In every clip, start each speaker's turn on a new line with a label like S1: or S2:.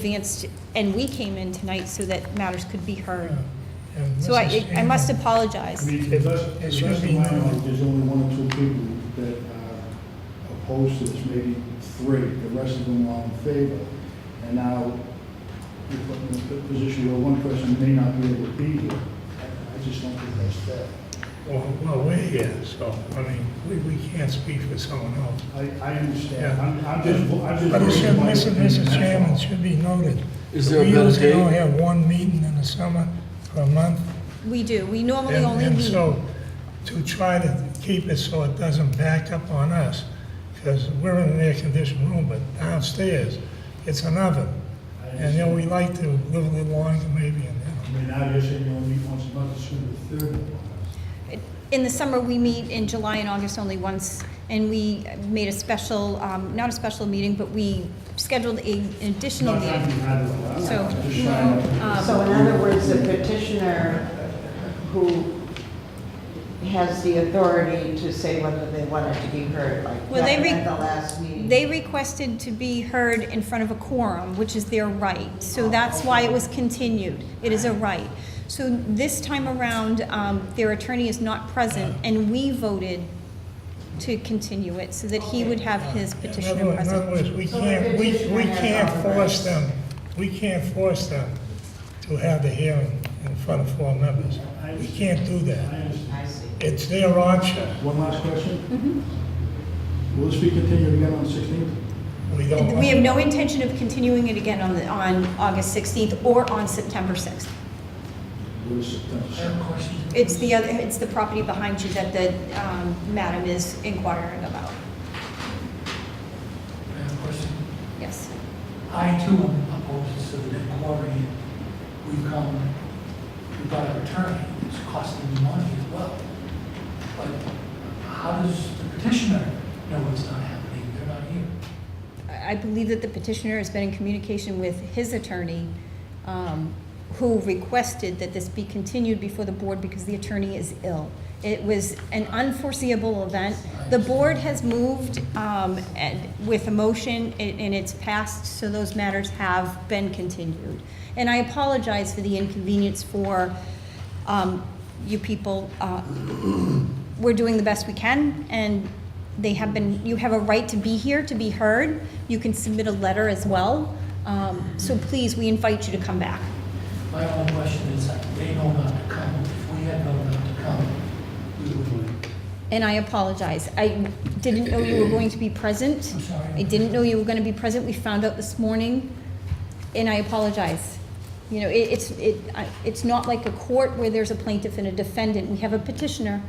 S1: advanced, and we came in tonight so that matters could be heard.
S2: And
S1: So I,
S2: Mrs.
S1: I must
S2: Ingram-
S1: apologize.
S3: I
S2: It-
S3: mean, unless,
S2: it
S3: unless
S2: should be
S3: in my
S2: known.
S3: mind, there's only one or two people that are opposed to this, maybe three, the rest of them are in favor. And now, you're put in a position where one person may not be able to be here. I I just don't think that's fair.
S2: Well, well, we're here, so, I mean, we, we can't speak for someone else.
S3: I, I understand,
S2: Yeah.
S3: I'm, I'm just, vo- I'm just.
S2: But it
S3: voicing
S2: should,
S3: my
S2: listen,
S3: opinion,
S2: Mr.
S3: that's all.
S2: Chairman, it should be noted.
S4: Is there a better
S2: We usually
S4: date?
S2: only have one meeting in the summer for a month.
S1: We do, we normally
S2: and-
S1: only
S2: And
S1: meet.
S2: so, to try to keep it so it doesn't back up on us, because we're in an air-conditioned room, but downstairs, it's an oven.
S3: I
S2: And, you know, we
S3: understand.
S2: like to live a little longer maybe, and,
S3: I
S2: you
S3: mean, now you're saying you only meet once a month, it's the third one.
S1: In the summer, we meet in July and August only once, and we made a special, um, not a special meeting, but we scheduled a an additional
S3: Not that
S1: meeting.
S3: you had one, I'm
S1: So, um,
S3: just trying to-
S5: So in other words, the petitioner who has the authority to say whether they want it to be heard, like
S1: Well, they
S5: that
S1: re-
S5: at the last meeting.
S1: They requested to be heard in front of a quorum, which is their right, so that's why it was continued. It is a right. So this time around, um, their attorney is not present, and we voted to continue it so that he would have his
S2: know. In other
S1: petitioner
S2: words- in other
S1: present.
S2: words, we
S5: So the
S2: can't, we, we
S5: petitioner has
S2: can't
S5: all the
S2: force
S5: rights.
S2: them, we can't force them to have the hearing in front of four members. We can't do
S3: I
S2: that.
S3: understand.
S5: I see.
S2: It's their option.
S3: One last question? Will this be continued again on the 16th?
S2: We don't.
S1: We have no intention of continuing it again on, the- on August 16th or on September 6th.
S3: Will this uh, September 2nd?
S1: It's the other, it's the property behind you that the um, madam is inquiring about.
S6: Madam President,
S1: Yes.
S6: I too am opposed to the quarry. We've come, we've got an attorney, it's costing me money as well. But how does the petitioner know it's not happening? They're not here.
S1: I I believe that the petitioner has been in communication with his attorney, um, who requested that this be continued before the board because the attorney is ill. It was an unforeseeable event. The board has moved um, and- with a motion i- and it's passed, so those matters have been continued. And I apologize for the inconvenience for um, you people. uh, We're doing the best we can, and they have been, you have a right to be here, to be heard. You can submit a letter as well. Um, So please, we invite you to come back.
S6: My only question is, that they know not to come. If we had known not to come, we would have.
S1: And I apologize. I didn't know you were going to be present.
S6: I'm sorry.
S1: I didn't know you were going to be present. We found out this morning, and I apologize. You know, it, it's, it, I- it's not like a court where there's a plaintiff and a defendant. We have a petitioner,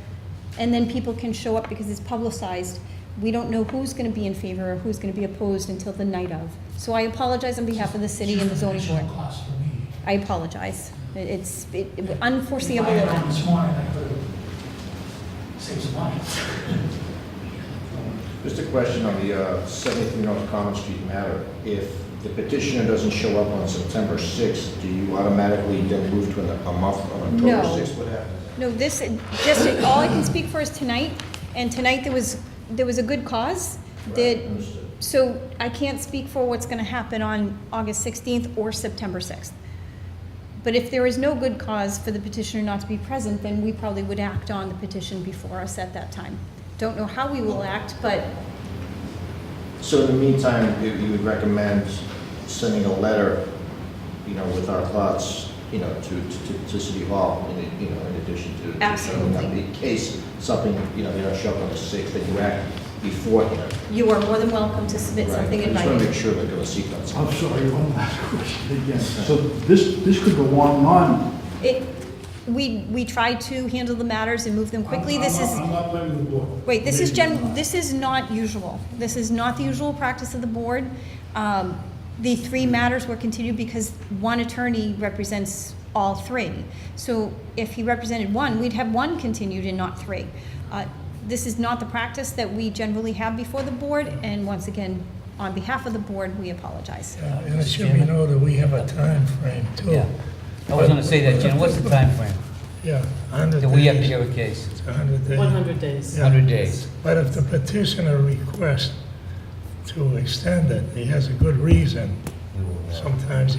S1: and then people can show up because it's publicized. We don't know who's going to be in favor or who's going to be opposed until the night of. So I apologize on behalf of the city and the zoning board.
S6: Additional cost for me.
S1: I apologize. It- It's it-
S6: If
S1: unforeseeable
S6: I had known
S1: event.
S6: This morning, I could have saved some money.
S7: Just a question on the uh, 73 North Common Street matter. If the petitioner doesn't show up on September 6th, do you automatically then move to an- a month on
S1: No.
S7: October 6th? What happens?
S1: No, this, just, all I can speak for is tonight, and tonight there was, there was a good cause. that-
S7: Right, understood.
S1: So I can't speak for what's gonna happen on August sixteenth or September sixth. But if there is no good cause for the petitioner not to be present, then we probably would act on the petition before us at that time. Don't know how we will act, but
S7: So in the meantime, you you would recommend sending a letter, you know, with our thoughts, you know, to, to, to City Hall, in it- you know, in addition to- to. showing up.
S1: Absolutely.
S7: In case something, you know, they don't show up on the 6th, that you act beforehand.
S1: you are more than welcome to submit
S7: Right.
S1: something in
S7: I just want to
S1: writing.
S7: make sure that there was sequence.
S3: I'm sorry, one last question again. So this, this could go on and on.
S1: It, we, we try to handle the matters and move them quickly.
S3: I'm-
S1: This
S3: I'm
S1: is.
S3: not- I'm not blaming the board.
S1: Wait, this is
S3: Maybe
S1: gen,
S3: not.
S1: this is not usual. This is not the usual practice of the board. Um, The three matters were continued because one attorney represents all three. So if he represented one, we'd have one continued and not three. Uh, This is not the practice that we generally have before the board, and once again, on behalf of the board, we apologize.
S2: Yeah, And it should be noted, we have a time frame too.
S8: Yeah, I was gonna say that, Jen, what's the timeframe?
S2: Yeah, 100
S8: Do we have to
S2: days.
S8: hear a case?
S2: It's 100 days.
S9: 100 days.
S2: Yeah.
S8: 100 days.
S2: But if the petitioner requests to extend it, he has a good reason, sometimes